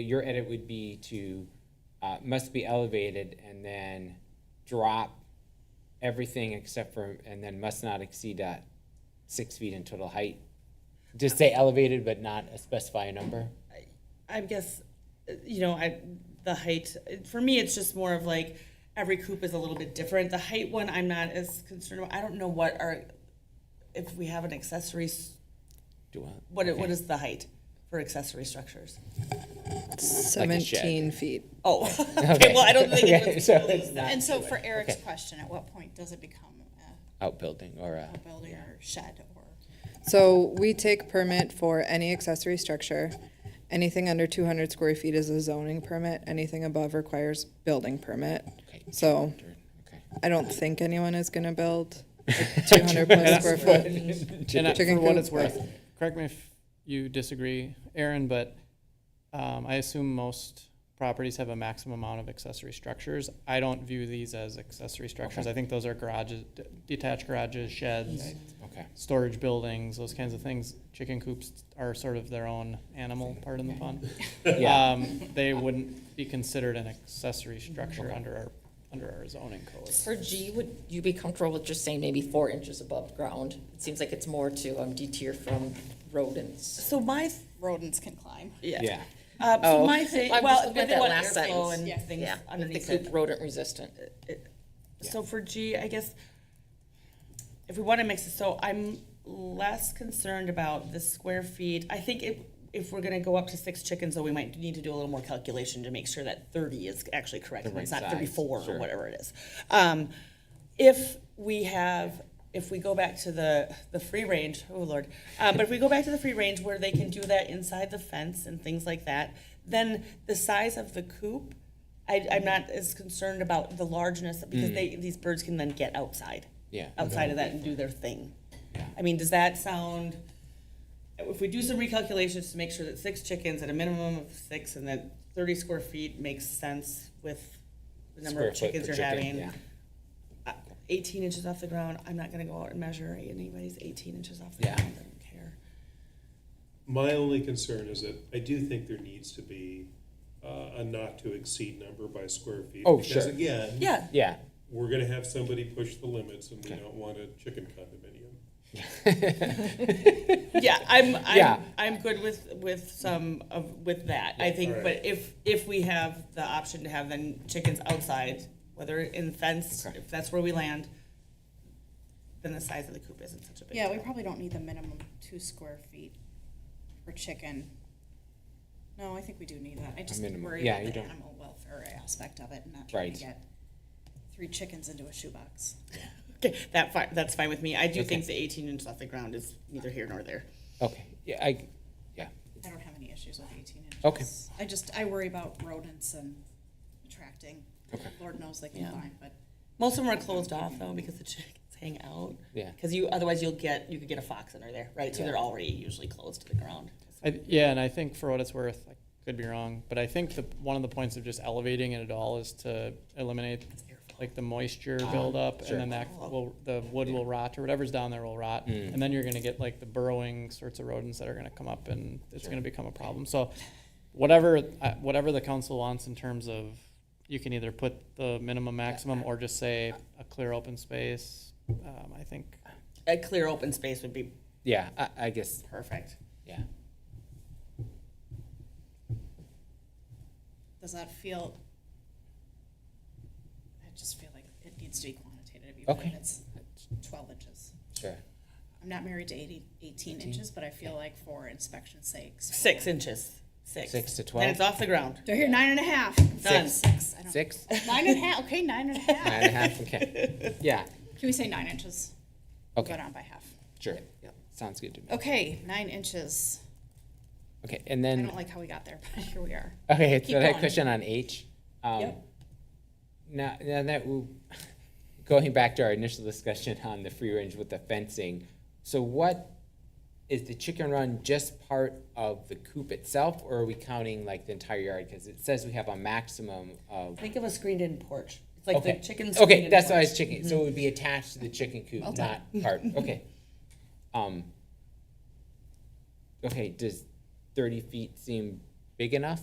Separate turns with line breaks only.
Your edit would be to, uh, must be elevated and then drop everything except for, and then must not exceed that six feet in total height. Just say elevated, but not specify a number.
I guess, uh, you know, I, the height, for me, it's just more of like, every coop is a little bit different. The height one, I'm not as concerned about. I don't know what are, if we have an accessory, s-
Do I?
what, it- what is the height for accessory structures?
a shed.
17 feet.
Oh, okay, well, I don't think it
Okay,
was.
so it's not
And so for Eric's question, at what point does it become a-
outbuilding or a,
a building or shed or?
So we take permit for any accessory structure. Anything under 200 square feet is a zoning permit. Anything above requires building permit.
okay.
So
Okay.
I don't think anyone is going to build a 200 plus square foot.
And I-
Chicken
for what
coop.
it's worth, correct me if you disagree, Aaron, but um, I assume most properties have a maximum amount of accessory structures. I don't view these as accessory structures. I think those are garages, d- detached garages, sheds,
Okay.
storage buildings, those kinds of things. Chicken coops are sort of their own animal, pardon the pun.
Yeah.
Um, They wouldn't be considered an accessory structure under our, under our zoning code.
For G, would you be comfortable with just saying maybe four inches above ground? It seems like it's more to um, deter from rodents.
So my,
Rodents can climb.
Yeah.
uh, so
Oh.
my thing,
I'm
well,
just looking
but
at
they
that
want
last
airflow
sentence.
and things
Yeah, with the
underneath it.
coop rodent resistant.
So for G, I guess, if we want to mix it, so I'm less concerned about the square feet. I think if, if we're gonna go up to six chickens, though, we might need to do a little more calculation to make sure that thirty is actually correct.
The
and It's
right
not
size,
thirty-four
sure.
or whatever it is. Um, if we have, if we go back to the, the free range, oh lord. Uh, but if we go back to the free range where they can do that inside the fence and things like that, then the size of the coop, I, I'm not as concerned about the largeness because they, these birds can then get outside.
Yeah.
Outside of that and do their thing. I mean, does that sound, if we do some recalculations to make sure that six chickens at a minimum of six and that thirty square feet makes sense with the number of
Square foot
chickens
per
you're
chicken,
having
yeah.
uh, 18 inches off the ground, I'm not gonna go out and measure anybody's 18 inches off the
Yeah.
ground, I don't care.
My only concern is that I do think there needs to be uh, a not to exceed number by square feet.
Oh,
Because
sure.
again,
Yeah,
Yeah.
we're gonna have somebody push the limits and we don't want a chicken condominium.
yeah, I'm, I'm,
Yeah.
I'm good with, with some of, with that, I think,
alright.
but if, if we have the option to have then chickens outside, whether in fence,
Okay.
if that's where we land, then the size of the coop isn't such a big
Yeah, we
deal.
probably don't need the minimum two square feet for chicken. No, I think we do need that. I just
minimum.
worry
Yeah,
about
you
the
don't-
animal welfare aspect of it and not trying to
Right.
get three chickens into a shoebox.
Okay, that fi- that's fine with me, I do
Okay.
think the 18 inches off the ground is neither here nor there.
Okay. Yeah. I, yeah.
I don't have any issues with eighteen inches.
Okay.
I just, I worry about rodents and attracting.
Okay.
Lord knows they
Yeah.
can climb, but.
Most of them are closed off though because the chickens hang out.
Yeah.
Because you otherwise you'll get you could get a fox under there, right? So
Yeah.
they're already usually closed to the ground.
I, yeah, and I think for what it's worth, I could be wrong, but I think the, one of the points of just elevating it at all is to eliminate like the moisture buildup,
sure.
and then that will, the wood will rot or whatever's down there will rot, and then you're going to get like the burrowing sorts of rodents that are going to come up, and it's going to become a problem. So, whatever uh, whatever the council wants in terms of, you can either put the minimum maximum or just say a clear open space. Um, I think
A clear open space would be
Yeah. I, I guess.
perfect.
Yeah.
Does that feel? I just feel like it needs to be quantitative, even
Okay.
if it's twelve inches.
Sure.
I'm not married to 80 18 inches, but I feel like for inspection sakes.
Six inches. Six.
Six to
Then it's
12?
off the ground.
Do I hear nine and a half?
Done.
Six, I don't-
Six?
Nine and a half, okay, nine and a half.
Nine and a half? Okay. Yeah.
Can we say nine inches? We'll Go
Okay.
down by half.
Sure. Yeah. Sounds good to me.
Okay, nine inches.
Okay. And
I
then.
don't like how we got there, but here we are.
Okay,
Keep
so that
going.
question on H. um,
Yep.
Now, now that, we- going back to our initial discussion on the free range with the fencing, so what, is the chicken run just part of the coop itself, or are we counting like the entire yard? Because it says we have a maximum of,
Think of a screened in porch. It's like
okay.
the chicken screened
Okay,
in
that's why I
porch.
was chicken, so it would be
Mm-hmm.
attached to the chicken coop, not part, okay. Um. Okay, does thirty feet seem big enough?